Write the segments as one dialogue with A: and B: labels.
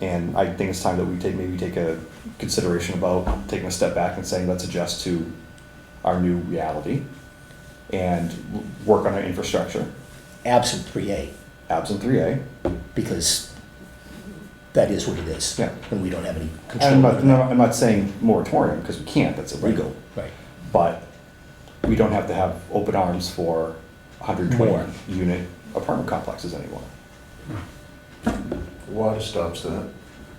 A: And I think it's time that we take, maybe take a consideration about taking a step back and saying, let's adjust to our new reality and w- work on our infrastructure,
B: absent three A,
A: absent three A.
B: because that is what it is.
A: Yeah.
B: And we don't have any
A: And I'm
B: control
A: not,
B: over that.
A: no, I'm not saying moratorium, because we can't, that's illegal,
B: Right,
A: but we don't have to have open arms for hundred
B: More.
A: twenty unit apartment complexes anymore.
C: Water stops that.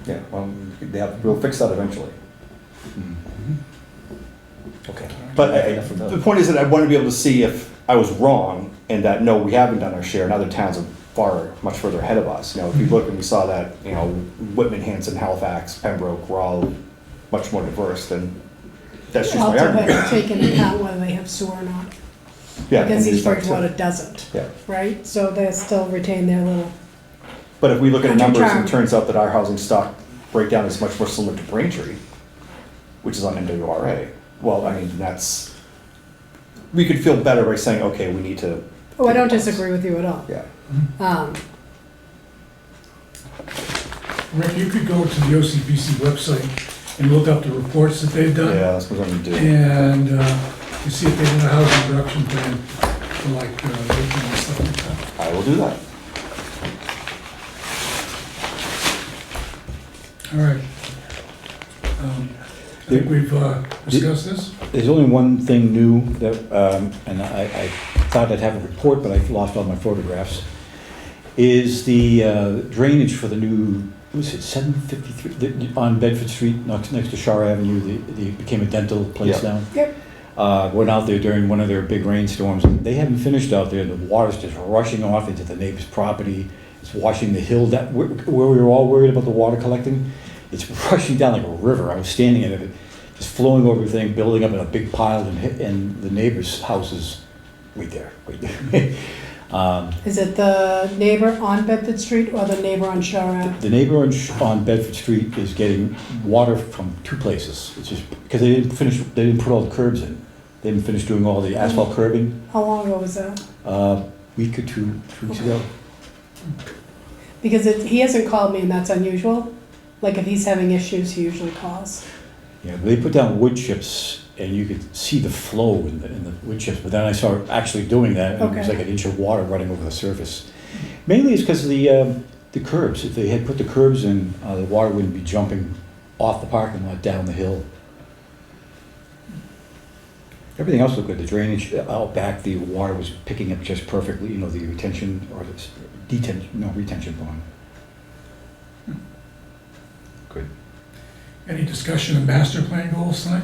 A: Yeah, well, they have, we'll fix that eventually.
B: okay.
A: But I-
B: Enough of
A: the
B: those.
A: point is that I want to be able to see if I was wrong and that, no, we haven't done our share and other towns are far, much further ahead of us. You know, if you look and we saw that, you know, Whitman, Hanson, Halifax, Pembroke, were all much more diverse than, that's just my
D: Well, to
A: argument.
D: have taken account whether they have sewer or not,
A: Yeah, and
D: because East
A: these are-
D: Bridgewater doesn't,
A: Yeah,
D: right? So they still retain their little, oh,
A: but if we look at
D: Under
A: numbers and
D: charm.
A: it turns out that our housing stock breakdown is much more similar to Braintree, which is on NWRA, well, I mean, that's, we could feel better by saying, okay, we need to.
D: oh, I don't disagree with you at all.
A: Yeah.
D: Um,
E: Rick, you could go to the OCBC website and look up the reports that they've done,
A: Yeah, that's what I'm gonna do.
E: and uh, you see if they did a housing production plan for like, uh, Lincoln and stuff like that.
A: I will do that.
E: All right. Um, I think we've uh, discussed this.
F: There's only one thing new that, um, and I, I thought I'd have a report, but I've lost all my photographs, is the uh, drainage for the new, what was it, seven fifty-three, on Bedford Street, next, next to Shar Avenue, the, the, became a dental place
A: Yeah.
F: now.
D: Yep.
F: Uh, went out there during one of their big rainstorms, they haven't finished out there, the water's just rushing off into the neighbor's property, it's washing the hill, that, where, where we were all worried about the water collecting, it's rushing down like a river, I was standing in it, just flowing over everything, building up in a big pile, and, hit- and the neighbor's house is right there, right there. um,
D: Is it the neighbor on Bedford Street or the neighbor on Shore Ave?
F: the neighbor on, Sh- on Bedford Street is getting water from two places. It's just because they didn't finish, they didn't put all the curbs in. They didn't finish doing all the asphalt curbing
D: How long ago was that?
F: uh, week or two, two weeks ago.
D: Because it, he hasn't called me and that's unusual. Like if he's having issues, he usually calls.
F: Yeah, they put down wood chips and you could see the flow in the, in the wood chips, but then I saw her actually doing that and it was
D: Okay.
F: like an inch of water running over the surface. Mainly it's because of the, um, the curbs. If they had put the curbs in, uh, the water wouldn't be jumping off the parking lot down the hill. Everything else looked good. The drainage uh, out back, the water was picking up just perfectly, you know, the retention or the s- detention, no, retention pond. Good.
E: Any discussion of master plan goals tonight?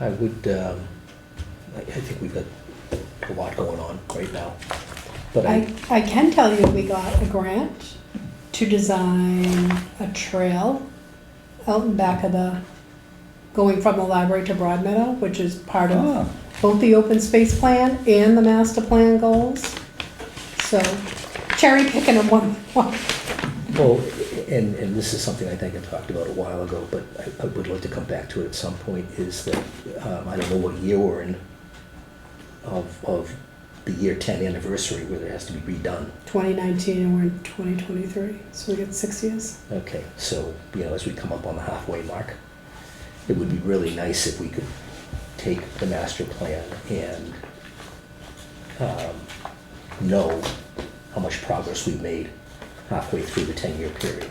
B: I would, um, I, I think we've got a lot going on right now, but I,
D: I, I can tell you we got a grant to design a trail out in back of the, going from the library to Broadmeadow, which is part of
F: Ah,
D: both the open space plan and the master plan goals. So cherry picking of one, one.
B: well, and, and this is something I think I talked about a while ago, but I, I would like to come back to it at some point, is that, um, I don't know what year we're in of, of the year ten anniversary where there has to be redone.
D: 2019 and we're in 2023, so we get six years.
B: Okay, so, you know, as we come up on the halfway mark, it would be really nice if we could take the master plan and um, know how much progress we've made halfway through the ten-year period.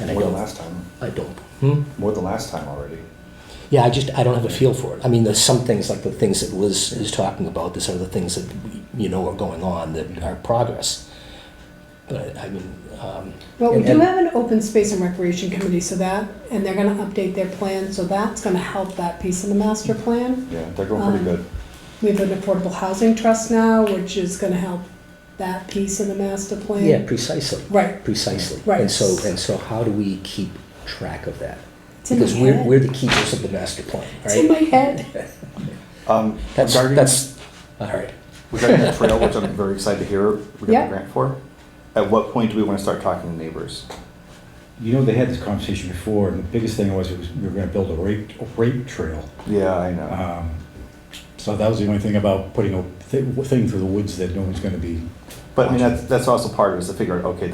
B: And I
A: More than
B: don't,
A: last time.
B: I don't, hmm?
A: More than last time already.
B: Yeah, I just, I don't have a feel for it. I mean, there's some things, like the things that Liz is talking about, there's other things that, you know, are going on that are progress. But, I mean, um,
D: Well, we
B: And-
D: do
B: and-
D: have an open space and recreation committee, so that, and they're gonna update their plan, so that's gonna help that piece of the master plan.
A: Yeah, they're going pretty
D: Um,
A: good.
D: We have an affordable housing trust now, which is gonna help that piece of the master plan.
B: yeah, precisely.
D: Right,
B: Precisely.
D: Right.
B: And so, and so how do we keep track of that?
D: It's in
B: Because
D: my
B: we're,
D: head.
B: we're the keepers of the master plan,
D: It's in
B: right?
D: my head.
A: Um,
B: That's,
A: regarding-
B: that's, all right.
A: Regarding that trail, which I'm very excited to hear we got
D: Yeah.
A: a grant for, at what point do we want to start talking to neighbors?
F: You know, they had this conversation before, and the biggest thing was, it was we were gonna build a rape, a rape trail.
A: Yeah, I know.
F: Um, So that was the only thing about putting a thi- thing through the woods that no one's gonna be.
A: But I mean, that's, that's also part of it, is to figure out, okay,